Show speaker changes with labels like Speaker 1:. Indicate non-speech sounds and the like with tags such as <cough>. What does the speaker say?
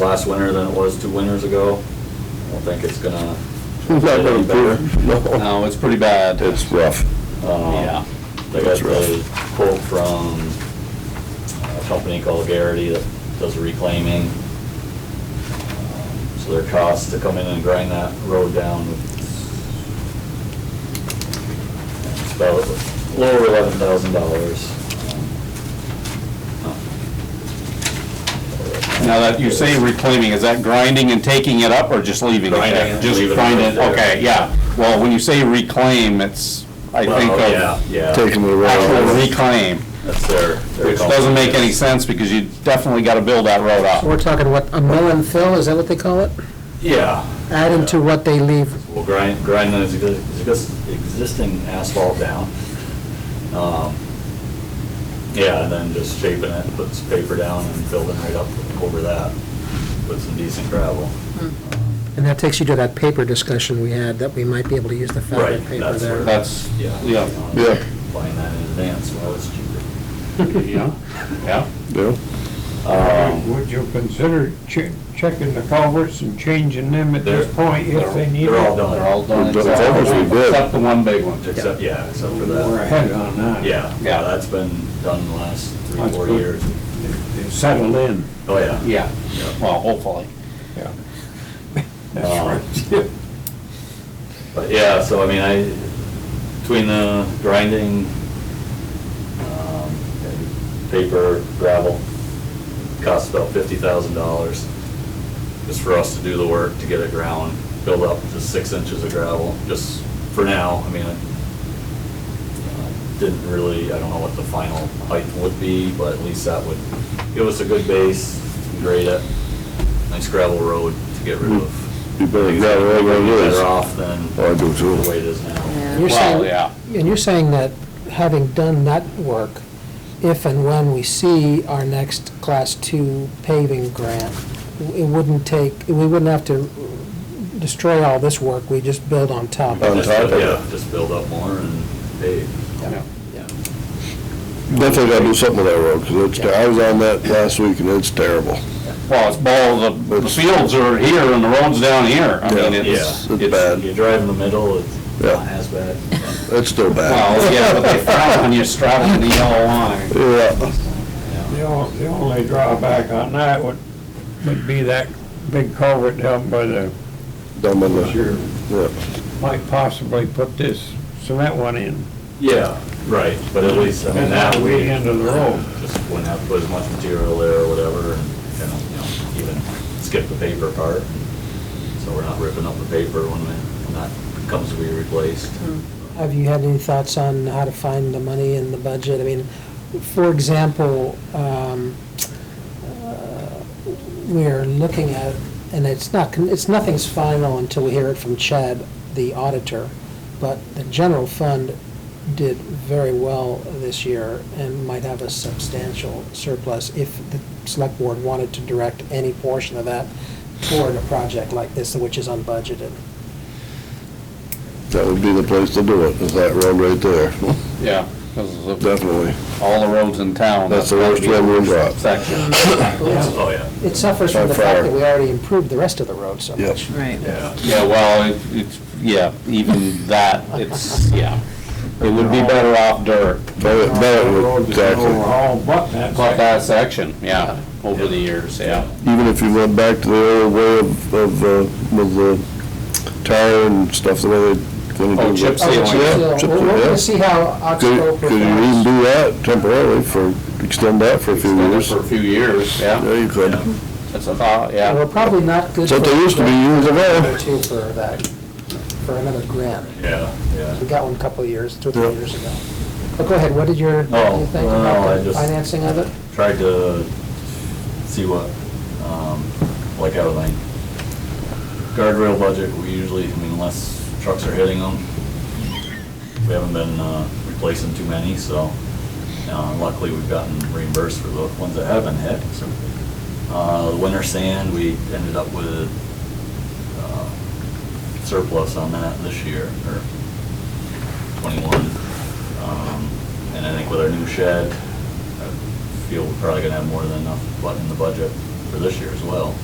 Speaker 1: last winter than it was two winters ago. I don't think it's gonna.
Speaker 2: It's <laughs> not gonna
Speaker 1: get any better.
Speaker 2: improve, no.
Speaker 1: No, it's pretty bad.
Speaker 2: It's rough.
Speaker 1: Um,
Speaker 2: Yeah.
Speaker 1: They got
Speaker 2: That's rough.
Speaker 1: the quote from uh, a company called Garrity that does reclaiming. Um, So their cost to come in and grind that road down it's about a little over eleven thousand dollars.
Speaker 3: Now that you say reclaiming, is that grinding and taking it up or just leaving it there?
Speaker 1: Grinding it,
Speaker 3: Just
Speaker 1: leave it
Speaker 3: grind
Speaker 1: right
Speaker 3: it,
Speaker 1: there.
Speaker 3: okay, yeah. Well, when you say reclaim, it's, I think
Speaker 1: Yeah,
Speaker 3: of
Speaker 1: yeah.
Speaker 2: Taking the
Speaker 3: actual
Speaker 2: road.
Speaker 3: reclaim,
Speaker 1: That's their. their
Speaker 3: which doesn't make any
Speaker 1: company.
Speaker 3: sense because you definitely got to build that road
Speaker 1: Uh,
Speaker 4: So
Speaker 3: up.
Speaker 4: We're talking, what, a mill and fill, is that what they call it?
Speaker 1: Yeah.
Speaker 4: Add into what they leave,
Speaker 1: We'll grind, grind the exi- exis- existing asphalt down. Um, Yeah, and then just shaping it, put some paper down and building right up over that with some decent gravel.
Speaker 4: and that takes you to that paper discussion we had, that we might be able to use the fabric
Speaker 1: Right,
Speaker 4: paper
Speaker 1: that's where-
Speaker 4: there.
Speaker 3: That's, yeah,
Speaker 2: Yeah.
Speaker 1: Buying that in advance, well, it's cheaper.
Speaker 3: yeah, yeah.
Speaker 2: Yeah.
Speaker 1: Um,
Speaker 5: Would you consider che- checking the culverts and changing them at
Speaker 1: They're-
Speaker 5: this point if they need it?
Speaker 1: They're all done.
Speaker 3: They're all done.
Speaker 2: We've done covers, we did.
Speaker 3: Except the one big one.
Speaker 1: Except, yeah, except for
Speaker 5: We're
Speaker 1: that.
Speaker 5: ahead on that.
Speaker 1: Yeah, yeah,
Speaker 3: Yeah.
Speaker 1: that's been done in the last three,
Speaker 5: That's
Speaker 1: four
Speaker 5: good.
Speaker 1: years.
Speaker 5: They Settled in.
Speaker 1: Oh, yeah.
Speaker 3: Yeah,
Speaker 1: Yeah.
Speaker 3: well, hopefully.
Speaker 5: Yeah.
Speaker 1: Um,
Speaker 5: <laughs> That's right.
Speaker 1: But yeah, so I mean, I, between the grinding, um, and paper, gravel, costs about fifty thousand dollars. Just for us to do the work, to get it ground, build up to six inches of gravel, just for now, I mean, I uh, didn't really, I don't know what the final height would be, but at least that would give us a good base, grade it, nice gravel road to get rid of.
Speaker 2: You better get it right where it is. Oh,
Speaker 1: Better off than
Speaker 2: I do too.
Speaker 1: the way it is now.
Speaker 4: You're
Speaker 3: Well,
Speaker 4: saying-
Speaker 3: yeah.
Speaker 4: And you're saying that, having done that work, if and when we see our next Class Two paving grant, it wouldn't take, we wouldn't have to destroy all this work, we just build on top of it.
Speaker 2: On
Speaker 1: Just,
Speaker 2: top of it.
Speaker 1: Yeah, just build up more and pave.
Speaker 3: Yeah.
Speaker 2: Definitely gotta do something with that road, because it's, ter- I was on that last week and it's terrible.
Speaker 3: Well, it's all, the- the fields are here and the road's down here. I mean,
Speaker 2: Yeah.
Speaker 3: it's,
Speaker 2: Yeah.
Speaker 3: it's
Speaker 2: Bad.
Speaker 1: You drive in the middle, it's not
Speaker 2: Yeah.
Speaker 1: as bad.
Speaker 2: It's still bad.
Speaker 3: Well, yeah, but they frown when you straddle the yellow line.
Speaker 2: Yeah,
Speaker 5: The on- the only drawback on that would, would be that big culvert down by the,
Speaker 2: dumb in the,
Speaker 5: Sure.
Speaker 2: yeah.
Speaker 5: might possibly put this cement one in.
Speaker 1: Yeah, right, but at least, I mean,
Speaker 5: And
Speaker 1: that
Speaker 5: that
Speaker 1: we
Speaker 5: way into the road.
Speaker 1: just wouldn't have to put as much material there or whatever, and, kind of, you know, even skip the paper part. So we're not ripping up the paper when it, when that comes to be replaced.
Speaker 4: Have you had any thoughts on how to find the money in the budget? I mean, for example, um, uh, we're looking at, and it's not, con- it's, nothing's final until we hear it from Chad, the auditor, but the general fund did very well this year and might have a substantial surplus if the select board wanted to direct any portion of that toward a project like this, which is unbudgeted.
Speaker 2: That would be the place to do it, is that road right there,
Speaker 3: Yeah, because
Speaker 2: definitely.
Speaker 3: all the roads in town.
Speaker 2: That's the worst one we've got.
Speaker 3: Section.
Speaker 1: Oh, yeah.
Speaker 4: It suffers from
Speaker 2: By
Speaker 4: the fact
Speaker 2: far.
Speaker 4: that we already improved the rest of the road so
Speaker 2: Yep.
Speaker 4: much.
Speaker 6: Right.
Speaker 1: Yeah.
Speaker 3: Yeah, well, it- it's, yeah, even that, it's, yeah. It would be better off dirt,
Speaker 2: Better,
Speaker 1: Oh,
Speaker 2: better,
Speaker 5: The road
Speaker 2: would-
Speaker 5: is
Speaker 2: exactly.
Speaker 5: Overall, but that's.
Speaker 3: but that section, yeah, over the years, yeah.
Speaker 2: Even if you went back to the old way of, of, uh, with the tire and stuff, the way they.
Speaker 3: Oh, chip
Speaker 2: Yeah,
Speaker 3: sealing.
Speaker 4: So,
Speaker 2: chip
Speaker 4: We're
Speaker 2: seal,
Speaker 4: going
Speaker 2: yeah.
Speaker 4: to see how Oxbow
Speaker 2: Could, could you even
Speaker 4: performs.
Speaker 2: do that temporarily for, extend that for a few
Speaker 3: Extended
Speaker 2: years?
Speaker 3: For a few years, yeah,
Speaker 2: Yeah, you could.
Speaker 3: that's a thought,
Speaker 4: And We're
Speaker 3: yeah.
Speaker 4: probably not good.
Speaker 2: That's what
Speaker 4: for-
Speaker 2: they used to be years ago.
Speaker 4: Too for that, for another grant.
Speaker 1: Yeah, yeah.
Speaker 4: We got one a couple of years, two or three
Speaker 2: Yeah.
Speaker 4: years ago. But go ahead, what did your, what did
Speaker 1: Oh,
Speaker 4: you think
Speaker 1: no, I
Speaker 4: about the
Speaker 1: just-
Speaker 4: financing of it?
Speaker 1: tried to see what, um, like out of my guardrail budget, we usually, I mean, unless trucks are hitting them, we haven't been, uh, replacing too many, so, uh, luckily we've gotten reimbursed for the ones that have been hit, so. Uh, the winter sand, we ended up with, uh, surplus on that this year, or twenty-one. Um, And I think with our new shed, I feel we're probably gonna have more than enough bu- in the budget for this year as well.